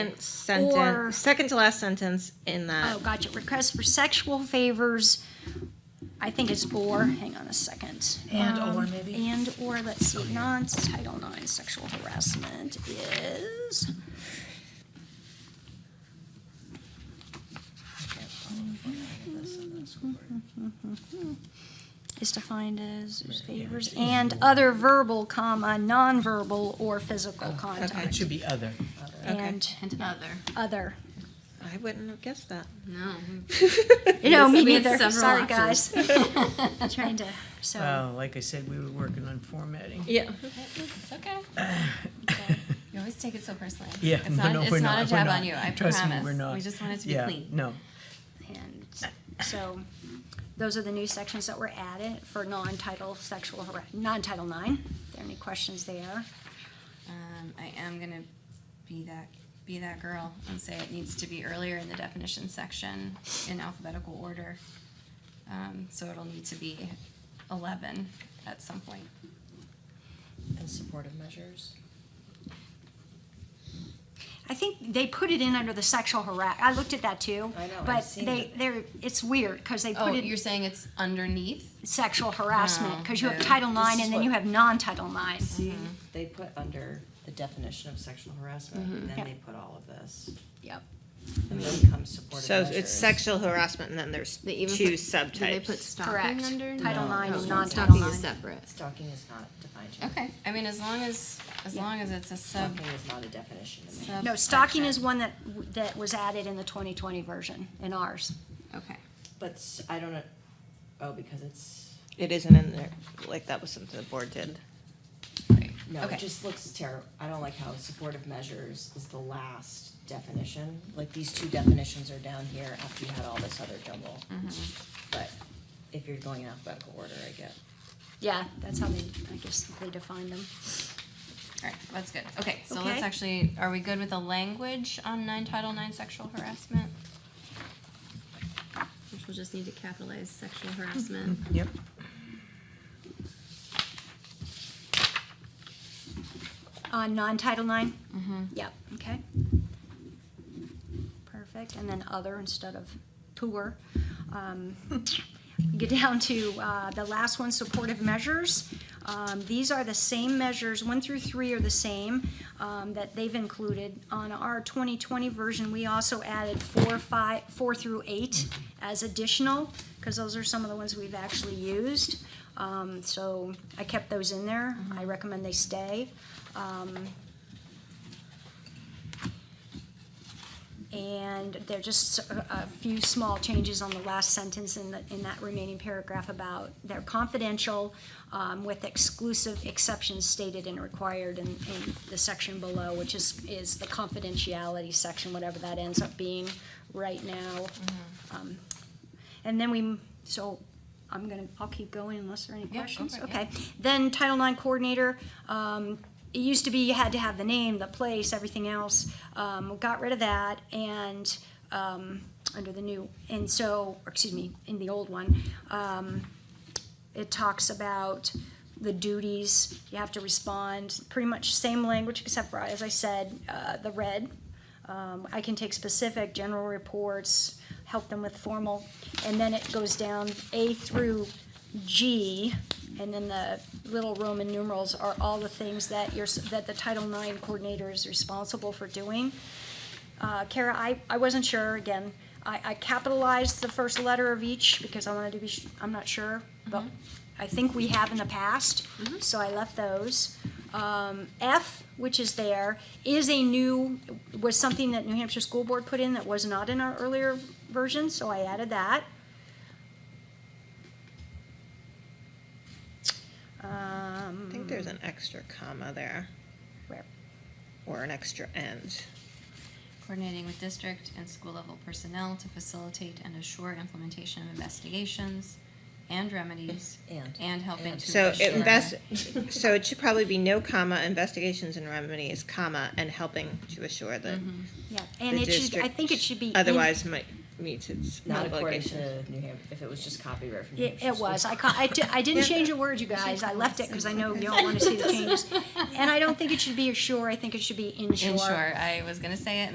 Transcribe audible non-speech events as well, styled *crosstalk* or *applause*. Sentence, second to last sentence in that. Oh, gotcha. Request for sexual favors. I think it's or. Hang on a second. Um, And or, maybe? And or. Let's see. Non Title IX sexual harassment is. Is defined as favors and other verbal, comma nonverbal or physical It contact should be other. and And another. other. I wouldn't have guessed that. No. You know, Yes, me we had neither. several Sorry, guys. options. *laughs* Trying to, so, Oh, like I said, we were working on formatting. Yeah. It's *sighs* okay. Okay. You always take it so personally. Yeah, It's no, *laughs* not, no, it's we're not, not. a we're jab not. on you. I Trust me, promise. we're not. We just want it to be Yeah, clean. No, and, so, those are the new sections that were added for non-title sexual, har- non-title nine. Are there any questions there? Um, I am gonna be that be that girl and say it needs to be earlier in the definition section in alphabetical order. Um, so it'll need to be eleven at some point. And supportive measures. I think they put it in under the sexual harass, I looked at that too. I know, I've But seen they, it. they're, it's weird, because they Oh, put you're it saying it's underneath? sexual harassment, No, because you have no. Title oh, This nine is and then you what- have non-title nine. See, they put under the definition of sexual harassment, Yeah. then they put all of this. Yep. Mm-hmm. And then comes supportive So measures. it's sexual harassment, and then there's They even two put- subtypes. Do they put stalking Correct. under? Title No. nine Oh, and no, non-title Stalking is nine. separate. Stalking is not defined yet. Okay, I mean, as long as, as Yeah. long as it's a sub. Stalking is not a definition to me. No, stalking is one that, that was added in the twenty twenty version, in ours. Okay. But s- I don't know, oh, because it's, It isn't in there. Like that was something the board did. Right. no, Okay. it just looks terrible. I don't like how supportive measures is the last definition. Like these two definitions are down here after you had all this other jumble. But if you're going in alphabetical order, I get. Yeah, that's how they, I guess, they define them. All right, that's good. Okay, so let's Okay. actually, are we good with the language on nine Title nine sexual harassment? Which we'll just need to capitalize sexual harassment. yep. On non-Title nine? Mm-hmm. Yep, okay. Perfect, and then other instead of poor. Um, Get down to uh, the last one, supportive measures. Um, These are the same measures, one through three are the same, um, that they've included. On our 2020 version, we also added four, five, four through eight as additional, because those are some of the ones we've actually used. Um, So I kept those in there. I recommend they stay. Um, And there are just a a few small changes on the last sentence in the, in that remaining paragraph about they're confidential um, with exclusive exceptions stated and required in, in the section below, which is, is the confidentiality section, whatever that ends up being right now. Mm-hmm. Um, And then we, so I'm gonna, I'll keep going unless there are any Yeah, go questions. for it, yeah. Okay. Then Title IX coordinator, um, it used to be you had to have the name, the place, everything else. Um, got rid of that and, um, under the new, and so, or excuse me, in the old one, um, it talks about the duties, you have to respond, pretty much same language except for, as I said, uh, the red. Um, I can take specific general reports, help them with formal, and then it goes down A through G, and then the little Roman numerals are all the things that you're, s- that the Title IX coordinator is responsible for doing. Uh, Kara, I, I wasn't sure, again, I, I capitalized the first letter of each because I wanted to be, sh- I'm not sure, Mm-hmm. but I think we have in the past, so I left those. Um, F, which is there, is a new, was something that New Hampshire School Board put in that was not in our earlier version, so I added that. Um, Mm. I think there's an extra comma there where? or an extra end. *laughs* Coordinating with district and school level personnel to facilitate and assure implementation of investigations and remedies. And. helping And. to. So assure- it invest. *laughs* so it should probably be no comma investigations and remedies comma and helping to assure that Mm-hmm. Yeah, and the it should, I district think it should be. in- otherwise might meets its Not according obligations. to New Hampshire, if it was just copyright from New It, Hampshire. it was. I, ca- I, di- I didn't change a word, you guys. I left it because I know you all want to see the changes. And I don't think it should be ashore. I think it should be inshore. Ensure, I was gonna say it,